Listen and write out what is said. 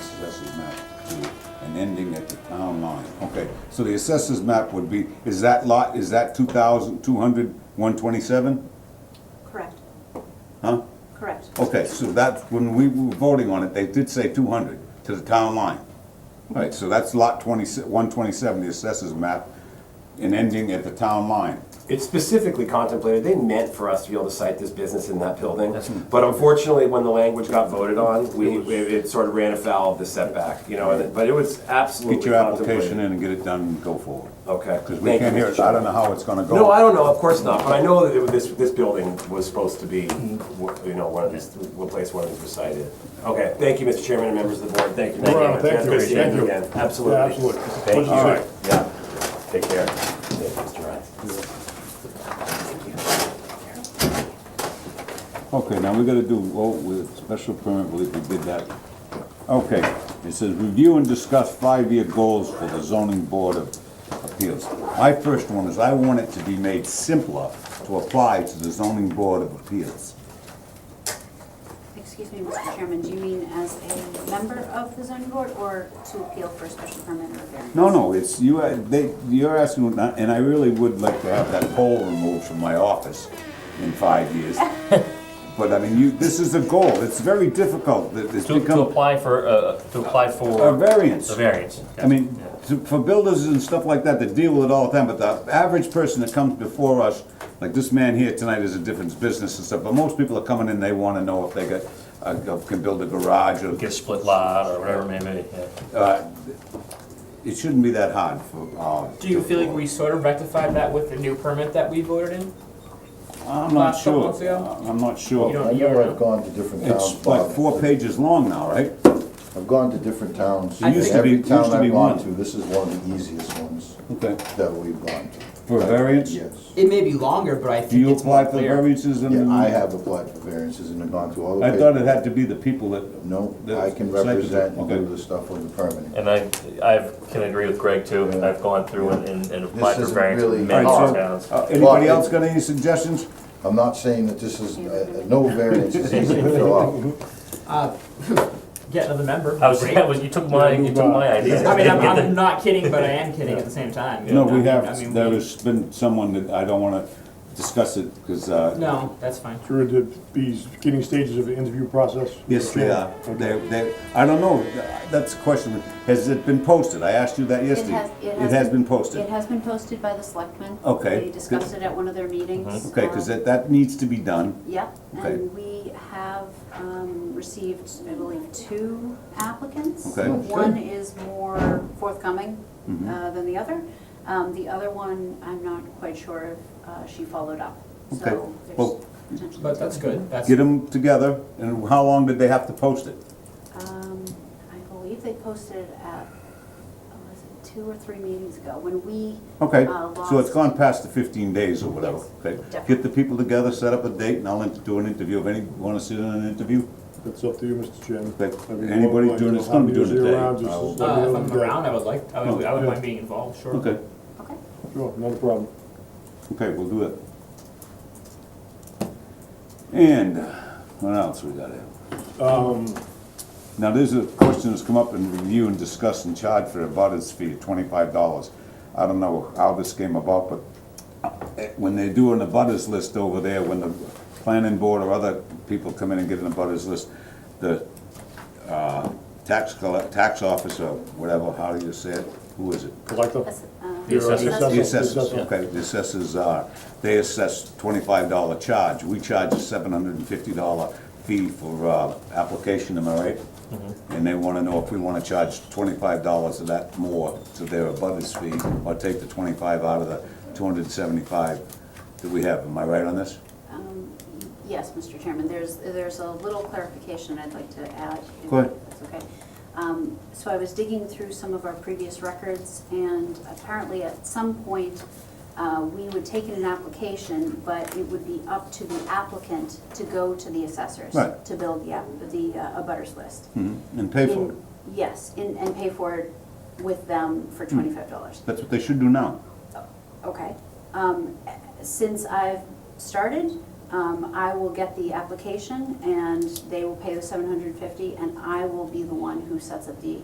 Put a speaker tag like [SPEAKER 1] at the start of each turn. [SPEAKER 1] assessor's map to an ending at the town line. Okay, so the assessor's map would be, is that lot, is that 2,200, 127?
[SPEAKER 2] Correct,
[SPEAKER 1] Huh?
[SPEAKER 2] correct.
[SPEAKER 1] Okay, so that, when we were voting on it, they did say 200 to the town line. All right, so that's lot 20, 127, the assessor's map, an ending at the town line.
[SPEAKER 3] It's specifically contemplated, they meant for us to be able to cite this business in that building. But unfortunately, when the language got voted on, we, we- it sort of ran afoul of the setback, you know, and it- but it was absolutely
[SPEAKER 1] Get your application
[SPEAKER 3] contemplated.
[SPEAKER 1] in and get it done and go forward.
[SPEAKER 3] Okay.
[SPEAKER 1] Because we
[SPEAKER 3] Oh, Thank you,
[SPEAKER 1] can't hear it,
[SPEAKER 3] Mr.
[SPEAKER 1] I don't
[SPEAKER 3] Chairman.
[SPEAKER 1] know how it's gonna go.
[SPEAKER 3] No, I don't know, of course not, but I know that it was- this, this building was supposed to be, you know, one of these, one place one of these was cited. Okay, thank you, Mr. Chairman and members of the board, thank you.
[SPEAKER 4] Well, thank
[SPEAKER 3] It's good
[SPEAKER 4] you,
[SPEAKER 3] to see you
[SPEAKER 4] thank you.
[SPEAKER 3] again. Absolutely.
[SPEAKER 4] Yeah, absolutely. It's a
[SPEAKER 3] Thank you.
[SPEAKER 4] pleasure to
[SPEAKER 3] Yeah, take care. Thank you, Mr. Ryan.
[SPEAKER 1] Okay, now we gotta do, well, with special permit, I believe we did that. Okay, it says review and discuss five-year goals for the zoning board of appeals. My first one is I want it to be made simpler to apply to the zoning board of appeals.
[SPEAKER 2] Excuse me, Mr. Chairman, do you mean as a member of the zoning board or to appeal for a special permit or variance?
[SPEAKER 1] No, no, it's, you, uh, they, you're asking, and I really would like to have that pole removed from my office in five years. But I mean, you, this is a goal, it's very difficult, It- it's
[SPEAKER 5] To, to
[SPEAKER 1] become
[SPEAKER 5] apply for, uh, to apply for.
[SPEAKER 1] a variance.
[SPEAKER 5] A variance.
[SPEAKER 1] I mean, to- for builders and stuff like that that deal with it all the time, but the average person that comes before us, like this man here tonight is a different business and stuff, but most people are coming in, they wanna know if they got, uh, can build a garage or,
[SPEAKER 5] Get a split lot or whatever it may be, yeah.
[SPEAKER 1] uh, it shouldn't be that hard for, uh.
[SPEAKER 6] Do you feel like we sort of rectified that with the new permit that we voted in?
[SPEAKER 1] I'm not
[SPEAKER 6] Last couple
[SPEAKER 1] sure.
[SPEAKER 6] months ago?
[SPEAKER 1] I'm not
[SPEAKER 6] You
[SPEAKER 1] sure.
[SPEAKER 6] don't-
[SPEAKER 7] I know I've gone to different towns,
[SPEAKER 1] It's like
[SPEAKER 7] Bob.
[SPEAKER 1] four pages long now, right?
[SPEAKER 7] I've gone to different towns.
[SPEAKER 1] It used to
[SPEAKER 7] Every
[SPEAKER 1] be-
[SPEAKER 7] town
[SPEAKER 1] used to
[SPEAKER 7] I've
[SPEAKER 1] be
[SPEAKER 7] gone
[SPEAKER 1] one.
[SPEAKER 7] to, This is one of the easiest ones
[SPEAKER 1] Okay.
[SPEAKER 7] that we've gone to.
[SPEAKER 1] For a variance?
[SPEAKER 7] Yes.
[SPEAKER 6] It may be longer, but I
[SPEAKER 1] Do
[SPEAKER 6] think
[SPEAKER 1] you
[SPEAKER 6] it's more
[SPEAKER 1] apply for
[SPEAKER 6] clear.
[SPEAKER 1] variances and?
[SPEAKER 7] Yeah, I have applied for variances and have gone through all the.
[SPEAKER 1] I thought
[SPEAKER 7] papers.
[SPEAKER 1] it had to be the people that.
[SPEAKER 7] No,
[SPEAKER 1] that-
[SPEAKER 7] I can
[SPEAKER 1] site-
[SPEAKER 7] represent and do
[SPEAKER 1] Okay.
[SPEAKER 7] the stuff with the permitting.
[SPEAKER 5] And I, I can agree with Greg too,
[SPEAKER 7] Yeah.
[SPEAKER 5] I've gone through and- and, and
[SPEAKER 7] This
[SPEAKER 5] applied for
[SPEAKER 7] isn't
[SPEAKER 5] variance in
[SPEAKER 7] really
[SPEAKER 5] many
[SPEAKER 7] hard.
[SPEAKER 5] towns.
[SPEAKER 1] Uh, Anybody
[SPEAKER 7] Well,
[SPEAKER 1] else
[SPEAKER 7] it-
[SPEAKER 1] got any suggestions?
[SPEAKER 7] I'm not saying that this is, uh, no variance is easy to fill out.
[SPEAKER 6] Get another member.
[SPEAKER 5] I was,
[SPEAKER 6] Great.
[SPEAKER 5] yeah, was, you took my, you took my idea.
[SPEAKER 6] I mean, I'm, I'm not kidding, but I am kidding at the same time. you
[SPEAKER 1] No,
[SPEAKER 6] know?
[SPEAKER 1] we
[SPEAKER 6] I
[SPEAKER 1] have,
[SPEAKER 6] mean,
[SPEAKER 1] there
[SPEAKER 6] we-
[SPEAKER 1] has been someone that, I don't wanna discuss it, because, uh,
[SPEAKER 6] No, that's fine.
[SPEAKER 4] Through the these beginning stages of the interview process.
[SPEAKER 1] yes, they are. They, they, I don't know, that's a question, has it been posted? I asked you that
[SPEAKER 2] It
[SPEAKER 1] yesterday.
[SPEAKER 2] has,
[SPEAKER 1] been
[SPEAKER 2] It
[SPEAKER 1] posted.
[SPEAKER 2] has been posted by the selectmen.
[SPEAKER 1] Okay.
[SPEAKER 2] They discussed it at one of their meetings.
[SPEAKER 1] Okay, because
[SPEAKER 2] Um,
[SPEAKER 1] that, that needs to be done.
[SPEAKER 2] Yep,
[SPEAKER 1] Okay.
[SPEAKER 2] and we have um, received, I believe, two applicants.
[SPEAKER 1] Okay. Mm-hmm. Oh,
[SPEAKER 2] One is more forthcoming uh, than the other. Um, The other one, I'm not quite sure if uh, she followed up.
[SPEAKER 1] Okay.
[SPEAKER 2] So there's
[SPEAKER 1] Well,
[SPEAKER 2] potentially
[SPEAKER 6] But
[SPEAKER 2] two.
[SPEAKER 6] that's good. That's
[SPEAKER 1] Get them together, and how long did they have to post it?
[SPEAKER 2] Um, I believe they posted it at, oh, was it two or three meetings ago, when we.
[SPEAKER 1] Okay,
[SPEAKER 2] uh,
[SPEAKER 1] so it's
[SPEAKER 2] lost-
[SPEAKER 1] gone past the fifteen days or whatever.
[SPEAKER 2] Yes,
[SPEAKER 1] Okay,
[SPEAKER 2] definitely.
[SPEAKER 1] Get the people together, set up a date, and I'll int- do an interview. If any, wanna sit in an interview?
[SPEAKER 4] That's up to you, Mr. Chairman.
[SPEAKER 1] Like,
[SPEAKER 4] I mean,
[SPEAKER 1] anybody
[SPEAKER 4] like,
[SPEAKER 1] doing-
[SPEAKER 4] you
[SPEAKER 1] it's
[SPEAKER 4] know,
[SPEAKER 1] gonna be
[SPEAKER 4] how
[SPEAKER 1] during
[SPEAKER 4] many
[SPEAKER 1] the
[SPEAKER 4] years
[SPEAKER 1] day.
[SPEAKER 4] around, just
[SPEAKER 1] I will-
[SPEAKER 4] as like
[SPEAKER 6] Uh, if
[SPEAKER 4] the
[SPEAKER 6] I'm
[SPEAKER 4] other day.
[SPEAKER 6] around, I would like, I would, I would
[SPEAKER 4] Yeah.
[SPEAKER 6] mind being involved, sure.
[SPEAKER 1] Oh. Okay,
[SPEAKER 2] Okay.
[SPEAKER 4] Sure, not a problem.
[SPEAKER 1] okay, we'll do it. And what else we got here?
[SPEAKER 4] Um,
[SPEAKER 1] Now, there's a question that's come up in review and discuss and charge for a butters fee of twenty-five dollars. I don't know how this came about, but eh, when they're doing the butters list over there, when the planning board or other people come in and get an abutters list, the, uh, tax collect, tax officer, whatever, how do you say it? Who is it?
[SPEAKER 4] collector.
[SPEAKER 2] That's, uh,
[SPEAKER 5] The assessors.
[SPEAKER 4] Your, uh,
[SPEAKER 1] The
[SPEAKER 4] assessor,
[SPEAKER 1] assessors, okay, the assessors are, they assess twenty-five dollar charge, we charge a seven hundred and fifty dollar fee for, uh, application, am I right? And they wanna know if we wanna charge twenty-five dollars of that more to their abutters fee, or take the twenty-five out of the two hundred and seventy-five that we have, am I right on this?
[SPEAKER 2] um, Yes, Mr. Chairman, there's, there's a little clarification I'd like to add. if
[SPEAKER 1] Go ahead.
[SPEAKER 2] That's okay. Um, So I was digging through some of our previous records, and apparently at some point, uh, we would take in an application, but it would be up to the applicant to go to the assessors.
[SPEAKER 1] Right.
[SPEAKER 2] To build the, app- the uh, abutters list.
[SPEAKER 1] And pay for it,
[SPEAKER 2] In- Yes, and, and pay for it with them for
[SPEAKER 1] Hmm.
[SPEAKER 2] twenty-five dollars.
[SPEAKER 1] that's what they should do now.
[SPEAKER 2] Okay. Um, since I've started, Um, I will get the application and they will pay the seven hundred and fifty and I will be the one who sets up the